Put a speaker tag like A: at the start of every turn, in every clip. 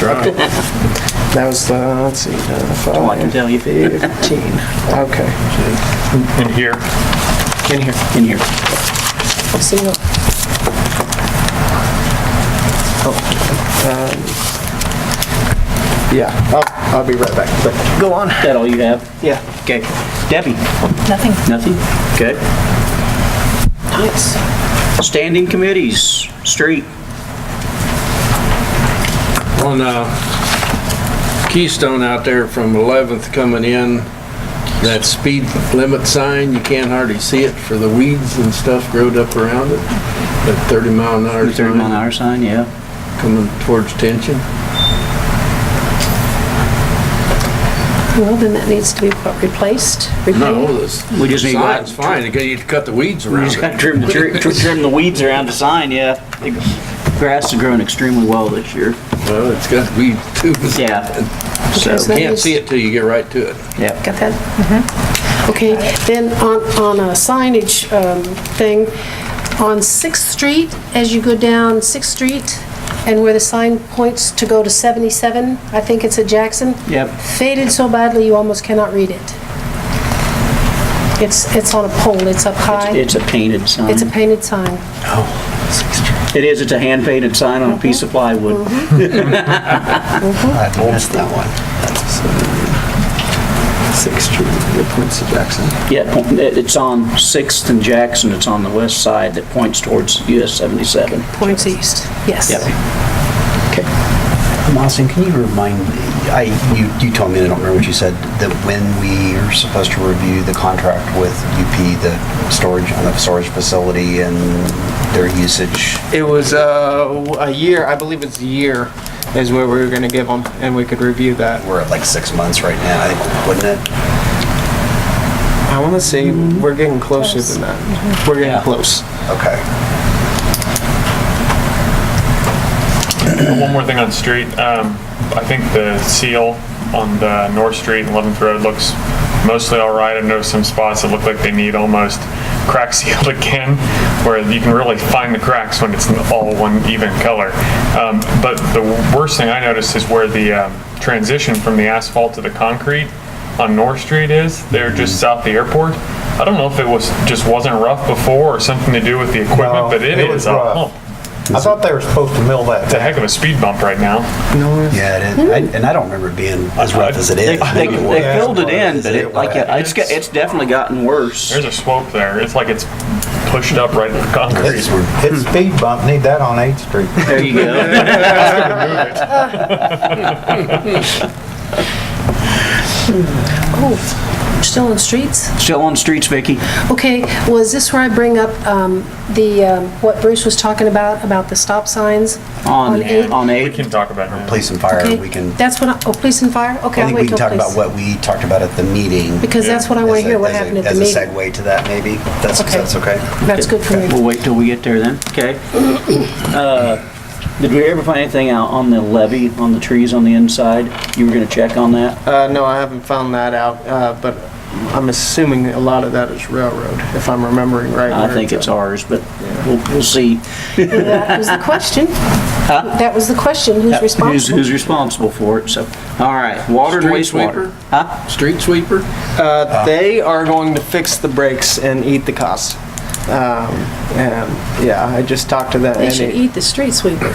A: Okay. That was the, let's see, uh, five,
B: tell you.
A: 15, okay,
C: in here.
A: in here.
B: In here.
A: Let's see what- Oh, um, Yeah, I'll, I'll be right back. But Go on.
B: That all you have?
A: Yeah.
B: Okay. Debbie?
D: Nothing.
B: Nothing? Okay.
A: Nice.
B: Standing committees, street.
E: on uh, Keystone out there from 11th coming in, that speed limit sign, you can't hardly see it for the weeds and stuff growed up around it. That 30 mile an hour
B: 30 mile an
E: sign
B: hour sign, yeah.
E: coming towards tension.
D: Well, then that needs to be what, replaced,
E: No,
D: repainted.
E: this
B: We just need to-
E: sign's fine, you gotta- you cut the weeds
B: We
E: around
B: just gotta
E: it.
B: trim the, tree- tr- trim the weeds around the sign, yeah. The Grass is growing extremely well this year.
E: Well, it's got weeds too.
B: Yeah. So,
D: Okay, so-
E: Can't see it till you get right to it.
B: yeah.
D: Got that? Mm-hmm. Okay, then on, on a signage um, thing, on Sixth Street, as you go down Sixth Street, and where the sign points to go to 77, I think it's at Jackson.
B: Yep.
D: Faded so badly, you almost cannot read it. It's, it's on a pole, it's up high,
B: It's a painted sign.
D: it's a painted sign.
B: It is, it's a hand painted sign on a piece of plywood.
D: Mm-hmm.
A: I missed that one. Sixth Street, it points to Jackson.
B: Yeah, po- it- it's on Sixth and Jackson, it's on the west side that points towards US 77.
D: Points east, yes.
B: Yep. Okay.
F: Austin, can you remind me, I, you, you told me, I don't remember what you said, that when we are supposed to review the contract with UP, the storage, on the storage facility and their usage,
A: It was uh, a year, I believe it's a year, is where we were gonna give them, and we could review that.
F: we're at like six months right now, I think, wouldn't it?
A: I wanna say, we're getting closer than that. We're
B: Yeah.
A: getting close.
F: Okay.
C: One more thing on street, um, I think the seal on the North Street and 11th Road looks mostly all right. I know some spots that look like they need almost crack sealed again, where you can really find the cracks when it's all one even color. Um, But the worst thing I noticed is where the um, transition from the asphalt to the concrete on North Street is, they're just south of the airport. I don't know if it was, just wasn't rough before or something to do with the equipment,
G: No,
C: but it
G: it was
C: is a
G: rough.
C: hump.
G: I thought they were supposed to mill that
C: It's a
G: thing.
C: heck of a speed bump right now.
F: Yeah, it is. I- and I don't remember it being as rough as it
B: They,
F: is.
B: they they
G: Yeah.
B: filled it in, but it, like, it's, got- it's definitely gotten worse.
C: There's a slope there. It's like it's pushed up right in the concrete.
F: It's-
G: It's speed bump, need that on 8th Street.
B: There you go.
D: Oh, still on streets?
B: Still on streets, Vicky.
D: Okay, well, is this where I bring up um, the, um, what Bruce was talking about, about the stop signs?
B: On,
D: eight?
B: on
C: We
B: eight.
C: can talk about it.
F: Police and fire,
D: Okay,
F: we can,
D: That's what, I- oh, police and fire? Okay,
F: I
D: I'll
F: think we
D: wait
F: can
D: till
F: talk about
D: police.
F: what we talked about at the meeting.
D: Because that's what I want
F: as
D: to
F: a-
D: hear, what
F: as a-
D: happened at the
F: As a
D: meeting.
F: segue to that, maybe? That's,
D: Okay.
F: that's okay?
D: That's good for me.
B: We'll wait till we get there then, okay? Uh, Did we ever find anything out on the levee, on the trees on the inside? You were gonna check on that?
A: Uh, no, I haven't found that out, uh, but I'm assuming a lot of that is railroad, if I'm remembering right.
B: I
A: where
B: think it's
A: at.
B: ours, but we'll, we'll see.
D: That was the question. That was the question, who's
B: Who's,
D: responsible?
B: who's responsible for it, so. All right, water and
E: Street
B: wastewater.
E: sweeper?
B: Huh?
E: Street sweeper?
A: Uh, they are going to fix the brakes and eat the cost. Um, and, yeah, I just talked to them.
D: They
A: and
D: should
A: it-
D: eat the street sweeper.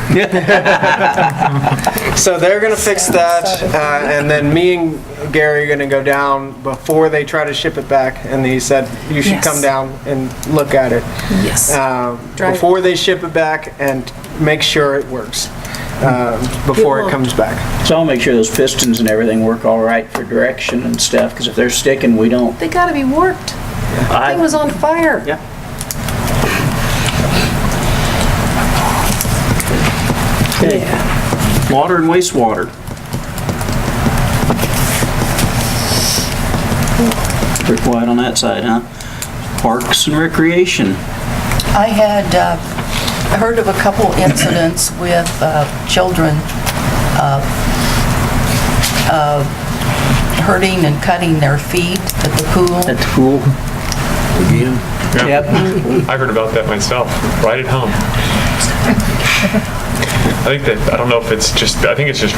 A: So they're gonna fix that, uh, and then me and Gary are gonna go down before they try to ship it back, and he said, you should
D: Yes.
A: come down and look at it.
D: Yes.
A: um,
D: Drive it.
A: Before they ship it back and make sure it works, um, before it
D: won't.
A: comes back.
B: So I'll make sure those pistons and everything work all right for direction and stuff, because if they're sticking, we don't.
D: They gotta be warped.
B: I-
D: Thing was on fire.
B: Yeah.
D: Yeah.
B: Water and wastewater. Pretty quiet on that side, huh? Parks and recreation.
H: I had uh, heard of a couple incidents with uh, children uh, uh, hurting and cutting their feet at the
B: At
H: pool.
B: the pool. Yep.
C: I heard about that myself, right at home. I think that, I don't know if it's just, I think it's just